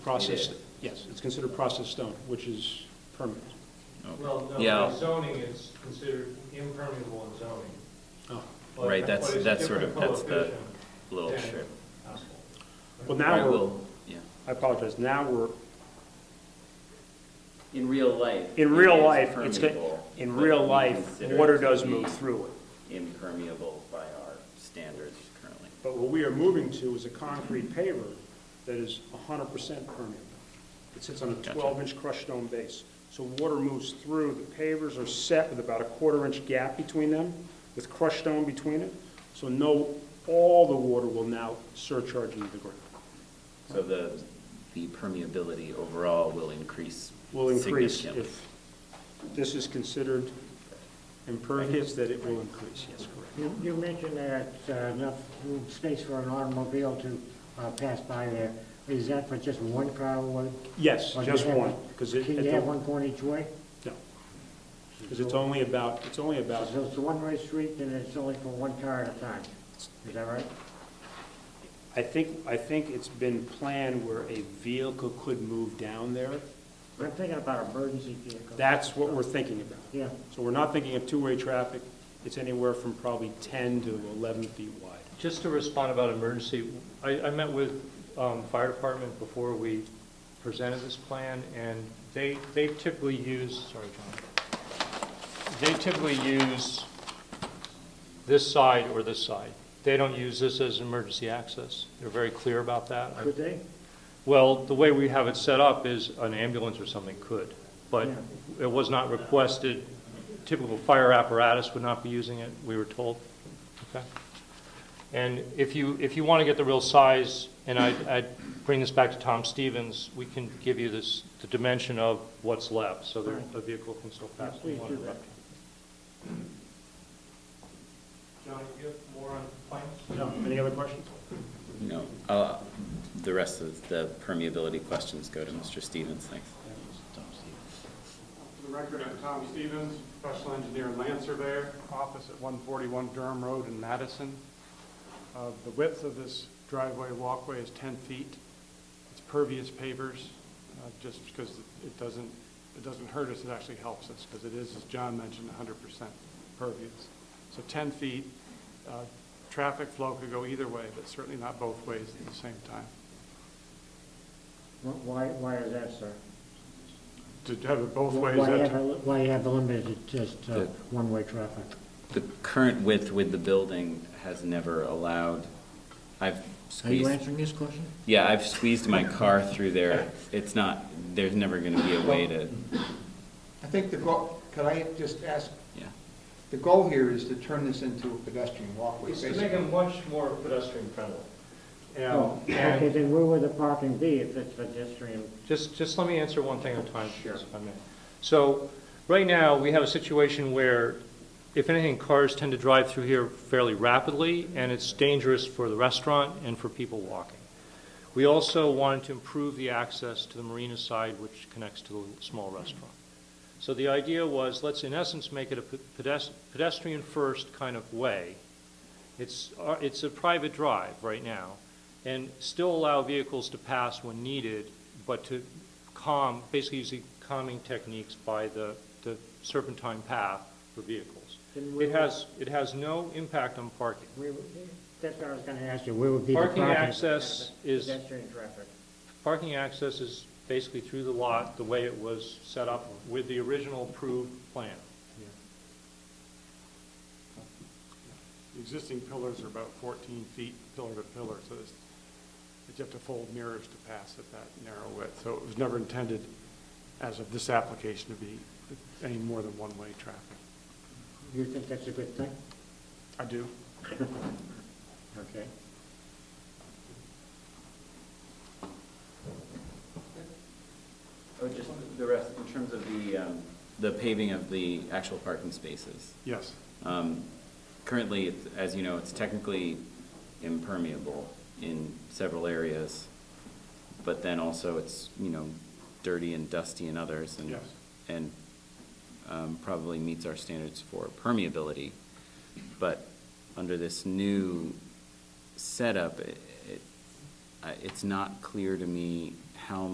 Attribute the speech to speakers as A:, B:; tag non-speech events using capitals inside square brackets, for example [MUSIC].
A: Processed,
B: It is.
A: yes, it's considered processed stone, which is permanent.
C: Well, no,
B: Yeah.
C: by zoning is considered impermeable in zoning.
A: Oh.
C: but-
B: Right, that's-
C: but it's a
B: that's sort of-
C: different
B: that's the
C: coefficient
B: little
C: than
B: strip.
C: asphalt.
A: Well,
B: Right,
A: now we're,
B: well, yeah.
A: I apologize, now we're,
B: In real life.
A: in
B: it
A: real
B: is
A: life, it's, go-
B: permeable,
A: in
B: but
A: real
B: we
A: life,
B: consider
A: water
B: it to
A: does
B: be
A: move through it.
B: Impermeable by our standards currently.
A: But what we are moving to is a concrete paver that is 100% permeable. It sits on a
B: Gotcha.
A: 12-inch crushed stone base. So water moves through, the pavers are set with about a quarter-inch gap between them, with crushed stone between it. So no, all the water will now surcharge into the ground.
B: So the, the permeability overall will increase
A: Will increase
B: significantly.
A: if this is considered impervious, that it will increase, yes, correct.
D: You you mentioned that uh, enough room space for an automobile to uh, pass by there. Is that for just one car? or-
A: Yes,
D: or do
A: just
D: you have-
A: one, because it,
D: Can you have
A: no,
D: one going each way?
A: because it's only about, it's only about
D: So it's a one-way street and it's only for one car at a time? Is that right?
A: I think, I think it's been planned where a vehicle could move down there.
D: I'm thinking about emergency vehicles.
A: That's what we're thinking about.
D: Yeah,
A: So we're not thinking of two-way traffic. It's anywhere from probably 10 to 11 feet wide.
E: Just to respond about emergency, I, I met with um, fire department before we presented this plan, and they, they typically use, sorry, John, they typically use this side or this side. They don't use this as emergency access. They're very clear about that.
D: could they?
E: Well, the way we have it set up is an ambulance or something could, but
D: Yeah.
E: it was not requested. Typical fire apparatus would not be using it, we were told. Okay. And if you, if you want to get the real size, and I'd, I'd bring this back to Tom Stevens, we can give you this, the dimension of what's left, so that a vehicle can still pass.
D: Yeah, please do that.
C: John, you have more on plans?
A: No, any other questions?
B: No, uh, the rest of the permeability questions go to Mr. Stevens, thanks.
F: For the record, I'm Tommy Stevens, professional engineer and land surveyor, office at 141 Durham Road in Madison. Uh, The width of this driveway walkway is 10 feet. It's pervious pavers, uh, just because it doesn't, it doesn't hurt us, it actually helps us, because it is, as John mentioned, 100% pervious. So 10 feet, uh, traffic flow could go either way, but certainly not both ways at the same time.
D: Wh- Why, why is that, sir?
F: To have it both ways
D: Why
F: at
D: have, a- why have limited just uh,
B: Yeah.
D: one-way traffic?
B: The current width with the building has never allowed, I've
D: Are you
B: squeezed,
D: answering this question?
B: yeah, I've squeezed my car through there. It's not, there's never going to be a way to,
G: I think the goal, could I just ask,
B: yeah.
G: the goal here is to turn this into a pedestrian walkway,
C: It's to make it
G: basically.
C: much more pedestrian friendly.
D: Oh, Okay,
E: And
D: then where would the parking be if it's pedestrian?
E: just, just let me answer one thing at a time, if I may. So, right now, we have a situation where, if anything, cars tend to drive through here fairly rapidly, and it's dangerous for the restaurant and for people walking. We also wanted to improve the access to the marina side, which connects to the small restaurant. So the idea was, let's in essence make it a pedes- pedestrian-first kind of way. It's, uh, it's a private drive right now, and still allow vehicles to pass when needed, but to calm, basically using calming techniques by the, the serpentine path for vehicles.
D: Then where
E: It has, it has no impact on parking.
D: Where would- That's what I was going to ask you, where would be the
E: Parking
D: parking?
E: access is-
D: Pedestrian traffic.
E: Parking access is basically through the lot, the way it was set up with the original approved plan.
F: The existing pillars are about 14 feet pillar to pillar, so it's, it's you have to fold mirrors to pass at that narrow width. So it was never intended, as of this application, to be any more than one-way traffic.
D: You think that's a good thing?
F: I [LAUGHS] do.
D: Okay.
B: Oh, just the rest, in terms of the, um, the paving of the actual parking spaces.
F: Yes.
B: Um, Currently, it's- as you know, it's technically impermeable in several areas, but then also it's, you know, dirty and dusty in others and,
F: Yes.
B: and um, probably meets our standards for permeability. But under this new setup, it, it- I- it's not clear to me how